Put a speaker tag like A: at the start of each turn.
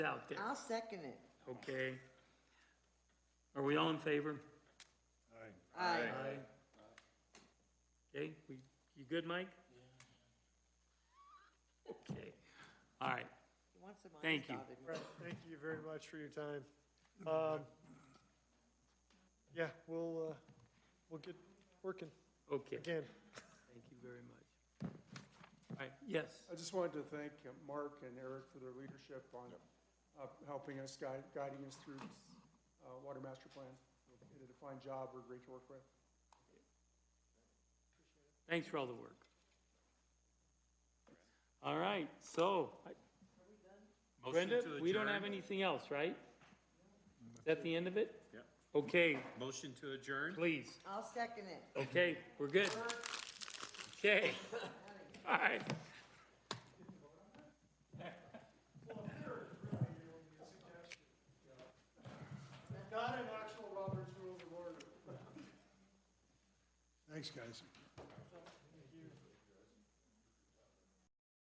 A: out there,
B: I'll second it.
A: okay? Are we all in favor?
B: Aye.
A: Okay, we, you good, Mike? Okay, all right,
B: He wants them on
A: Thank you.
B: his dotted line.
C: Right, thank you very much for your time. Um, Yeah, we'll, uh, we'll get working
A: okay,
C: again.
A: thank you very much. All right, yes,
D: I just wanted to thank uh, Mark and Eric for their leadership on uh, helping us, guide- guiding us through this uh, water master plan. They did a fine job, we're great to work with.
A: thanks for all the work. All right, so. Brenda,
E: Motion to
A: we don't
E: adjourn.
A: have anything else, right? Is that the end of it? Yeah. Okay,
E: Motion to adjourn?
A: please,
B: I'll second it.
A: okay, we're good. Okay, all right.
D: Not an actual Robert's Rules of Order.
F: Thanks, guys.